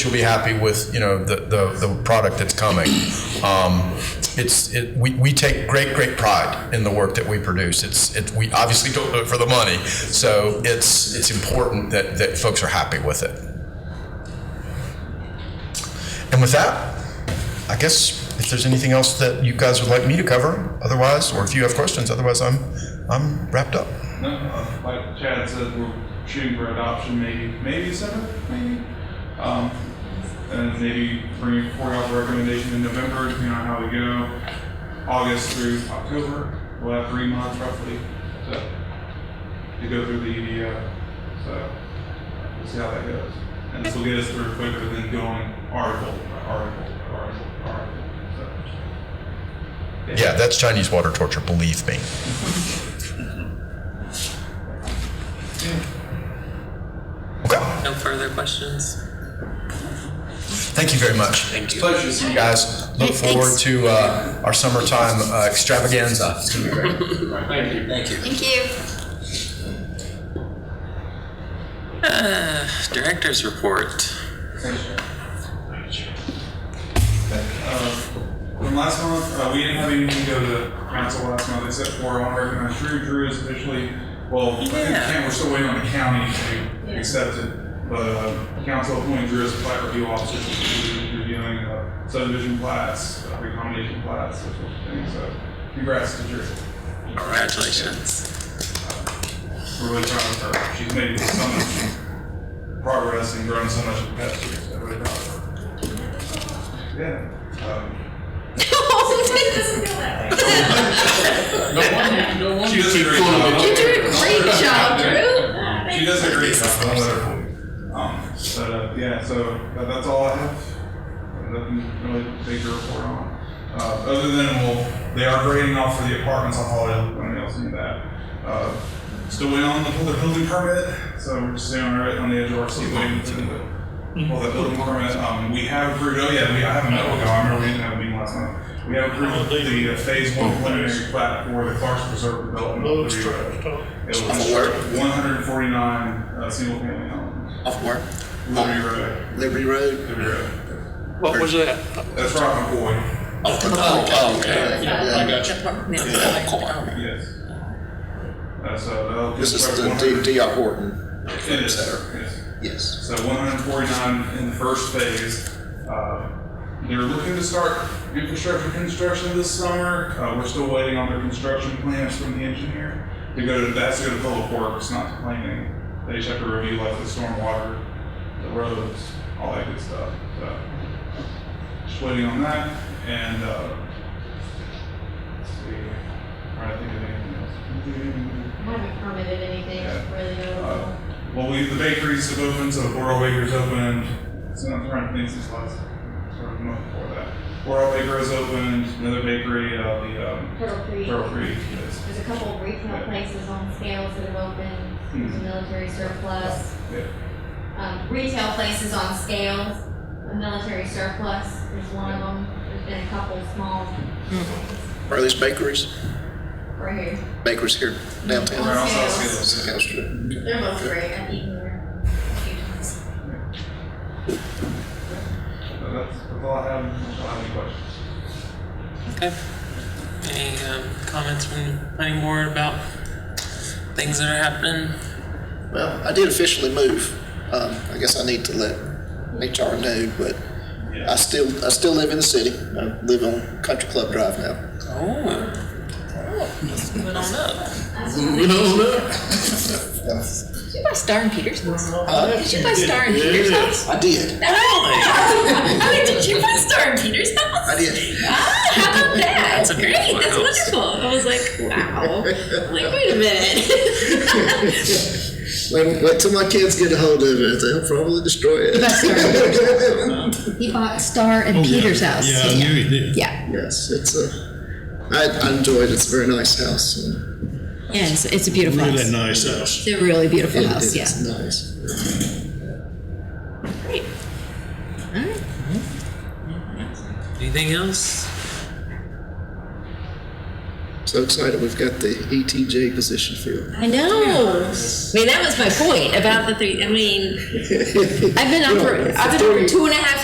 she'll be happy with, you know, the, the, the product that's coming. Um, it's, it, we, we take great, great pride in the work that we produce. It's, it, we obviously don't do it for the money. So it's, it's important that, that folks are happy with it. And with that, I guess if there's anything else that you guys would like me to cover, otherwise, or if you have questions, otherwise I'm, I'm wrapped up. No, uh, like Chad said, we're shooting for adoption maybe, maybe seventh, maybe. Um, and maybe bring a courthouse recommendation in November, depending on how we go. August through October, we'll have three months roughly to, to go through the EDO. So we'll see how that goes. And this will get us through quicker than going article, by article, by article, by article. So, Yeah, that's Chinese water torture, believe me. Okay, No further questions? thank you very much. Thank you. Pleasure to see you guys. Look Hey, forward thanks. to uh, our summertime uh, extravaganza. It's gonna be great. Thank you. Thank you. Thank you. Director's report. Thanks, Chad. From last month, uh, we didn't have anything go to council last month except for I want to recognize Drew. Drew is officially, well, I think the Yeah. county- we're still waiting on the county to accept it. But uh, council appointed Drew as a plat review officer, so we're reviewing uh, subdivision plats, uh, recombination plats, those sorts of things. So congrats to Drew. Congratulations. We're really proud of her. She's made so much progress and grown so much in the past year. So really proud of her. Yeah. Um, She does a great job. You're doing a great job, Drew. She does a great job. I'll let her. Um, but uh, yeah, so uh, that's all I have. Nothing really big to report on. Uh, other than well, they are grading off for the apartments on Holiday. Look, Nobody else knew that. Uh, still waiting on the the building permit, so we're just sitting on, our- on the edge of our seat waiting for the Mm-hmm. well, the building permit. Um, we have approved. Oh yeah, we, I have a note ago. I remember we didn't have a meeting last night. We have Oh, approved the uh, phase one preliminary plat for the Clarkson Preserve development. of the Rio. It was Off work? 149 uh, single family homes. Off work. Liberty Road. Liberty Road. Liberty Road. What was that? That's Rock McCoy. Oh, oh, oh, okay. Yeah, got you. Of course. Yes. Uh, so that'll This is the D- D.R. Horton Center. Yes. Yes. So 149 in the first phase. Uh, They're looking to start infrastructure construction this summer. Uh, We're still waiting on their construction plans from the engineer. To go to, that's to go to public works, not to planning. They just have to review like the stormwater, the roads, all that good stuff. So Just waiting on that and, uh, let's see, I'm trying to think of anything else. I haven't permitted anything Yeah. really Uh, notable. Well, we, the bakeries have opened, so the Borough Baker's opened. So I'm trying to think since last, sort of month before that. Borough Baker has opened, another bakery, uh, the, um, Turtle Creek, Turtle Creek. is- there's a couple of Yeah. retail places on scales that have opened, there's a Hmm. military surplus. Yeah. Um, retail places on scales, a military surplus, there's one of them, there's been a couple small Are these bakeries? right here. Bakeries here downtown? Right on South Scales. Scales. South House Street. They're both great, I've eaten there. a few times. So that's, that's all I have, unless y'all have any questions. Okay. Any um, comments from planning board about things that are happening? Well, I did officially move. Um, I guess I need to let HR know, but I still, I still live in the city. I live on Country Club Drive now. Oh. Let's move it on up. Did you buy Star and Peter's house? Did you buy Star and Peter's house? I did. I mean, did you buy Star and Peter's house? I did. Ah, how about that? That's a Great, beautiful that's house. wonderful. I was like, wow. I'm like, wait a minute. Wait, wait till my kids get a hold of it. They'll probably destroy it. He bought Star and Peter's house. Oh, Yeah, I knew he did. Yeah. Yes, it's a, I, I enjoy it. It's a very nice house. and Yeah, it's, it's a beautiful house. Really nice uh, house. It's a really beautiful it- house. Yeah. It's nice. Great. All right. Anything else? So excited we've got the ETJ position filled. I know. I mean, that was my point about the three. I mean, I've been on for I've been on for two and a half